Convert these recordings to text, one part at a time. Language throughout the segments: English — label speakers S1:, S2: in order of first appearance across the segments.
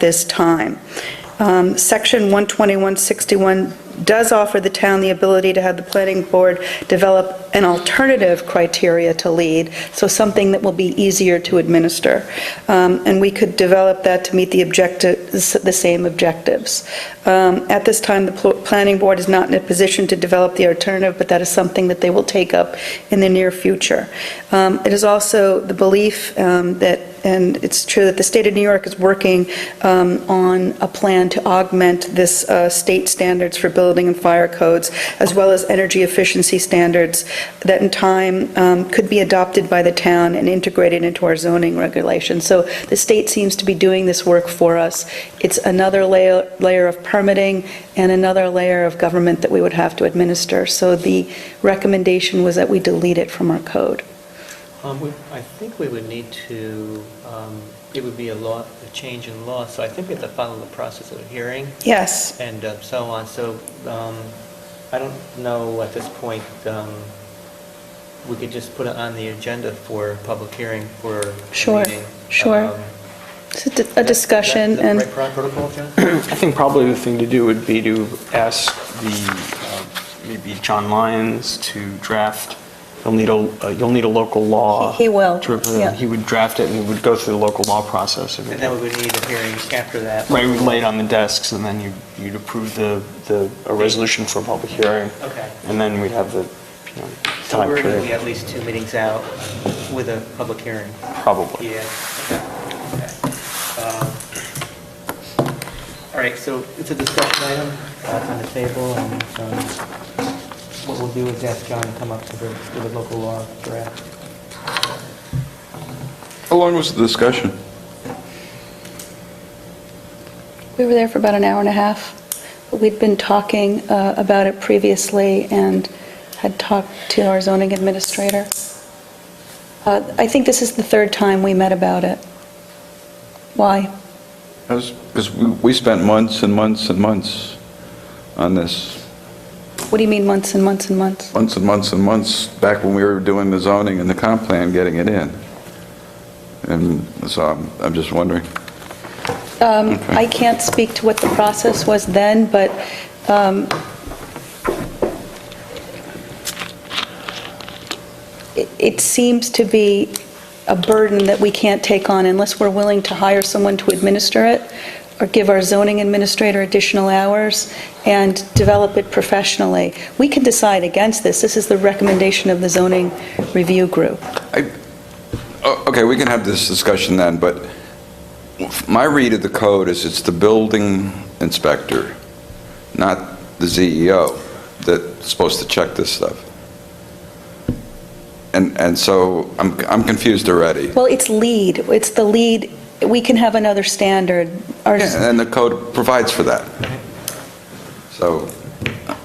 S1: this time. Um, Section 12161 does offer the town the ability to have the planning board develop an alternative criteria to lead, so something that will be easier to administer. Um, And we could develop that to meet the objective, the same objectives. Um, At this time, the pl- planning board is not in a position to develop the alternative, but that is something that they will take up in the near future. Um, It is also the belief um, that, and it's true that the state of New York is working um, on a plan to augment this uh, state standards for building and fire codes, as well as energy efficiency standards that in time um, could be adopted by the town and integrated into our zoning regulations. So the state seems to be doing this work for us. It's another layer layer of permitting and another layer of government that we would have to administer. So the recommendation was that we delete it from our code.
S2: Um, we- I think we would need to, um, it would be a law, a change in law, so I think we have to follow the process of a hearing
S1: Yes.
S2: and uh, so on, so um, I don't know at this point, um, we could just put it on the agenda for public hearing for a
S1: Sure,
S2: meeting.
S1: sure.
S2: Um,
S1: It's a di- a discussion
S2: Is that- is
S1: and...
S2: that the right protocol, John?
S3: I think probably the thing to do would be to ask the, uh, maybe John Lyons to draft, you'll need a, uh, you'll need a local law.
S1: He- he will,
S3: to represent-
S1: yeah.
S3: He would draft it and we would go through the local law process. and-
S2: And then we would need a hearing after that.
S3: Right, we'd lay it on the desks and then you- you'd approve the, the, a resolution for a public hearing.
S2: Okay.
S3: And then we'd have the, you know,
S2: So
S3: time
S2: we're going to be
S3: period,
S2: at least two meetings out with a public hearing.
S3: probably.
S2: Yeah. okay, okay. Um, All right, so it's a discussion item uh, it's on the table, and um, what we'll do is ask John to come up with a, with a local law draft.
S4: How long was the discussion?
S1: We were there for about an hour and a half. We'd been talking uh, about it previously and had talked to our zoning administrator. Uh, I think this is the third time we met about it. Why?
S4: Because we spent months and months and months on this,
S1: What do you mean months and months and months?
S4: months and months and months, back when we were doing the zoning and the comp plan, getting it in. And so I'm- I'm just wondering.
S1: Um,
S4: Okay.
S1: I can't speak to what the process was then, but um, it- it seems to be a burden that we can't take on unless we're willing to hire someone to administer it or give our zoning administrator additional hours and develop it professionally. We can decide against this. This is the recommendation of the zoning review group.
S4: O- Oh, Okay, we can have this discussion then, but my read of the code is it's the building inspector, not the CEO, that's supposed to check this stuff. And, and so I'm, I'm confused already.
S1: Well, it's lead. It's the lead. We can have another standard. Our-
S4: Yeah, uh, and the code provides for that. So,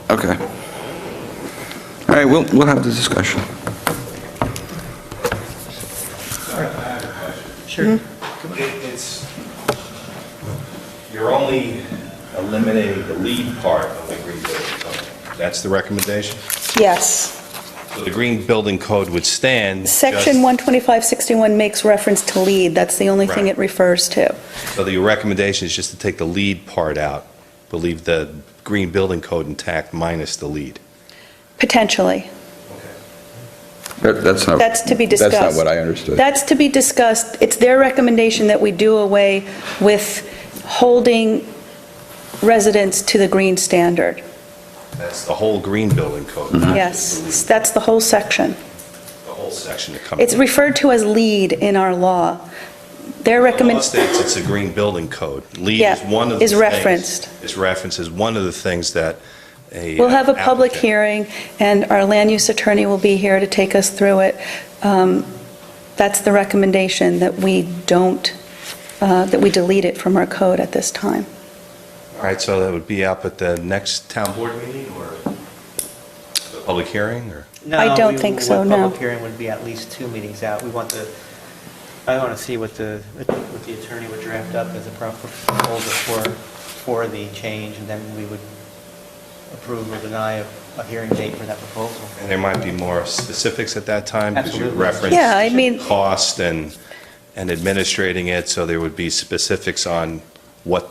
S4: okay. All right, we'll, we'll have the discussion.
S2: Sure.
S1: Hmm?
S5: It- It's, you're only eliminating the lead part of the green building code. That's the recommendation?
S1: Yes.
S5: So the green building code would stand.
S1: Section
S5: just-
S1: 12561 makes reference to lead. That's the only thing
S5: Right.
S1: it refers to.
S5: So the recommendation is just to take the lead part out, but leave the green building code intact minus the lead.
S1: Potentially.
S4: That- That's not.
S1: That's to be
S4: That's
S1: discussed.
S4: not what I understood.
S1: That's to be discussed. It's their recommendation that we do away with holding residents to the green standard.
S5: That's the whole green building code. not just the lead,
S1: Mm-hmm. Yes. That's the whole section.
S5: The whole section that comes.
S1: It's referred to as lead in our law. Their
S5: Law
S1: recommendation.
S5: states it's a green building code. Lead is
S1: Yeah,
S5: one of the
S1: is
S5: things.
S1: referenced.
S5: Is referenced as one of the things that a. uh,
S1: We'll have a public
S5: applicant-
S1: hearing, and our land use attorney will be here to take us through it. Um, That's the recommendation, that we don't, uh, that we delete it from our code at this time.
S5: All right, so that would be up at the next town board meeting or the public hearing or?
S1: I don't think so,
S2: The
S1: no.
S2: public hearing would be at least two meetings out. We want the, I want to see what the, what the attorney would draft up as a pro- proposal for, for the change, and then we would approve or deny a, a hearing date for that proposal.
S5: And there might be more specifics at that time because you
S2: Absolutely.
S5: referenced.
S1: Yeah, I mean-
S5: Cost and, and administrating it, so there would be specifics on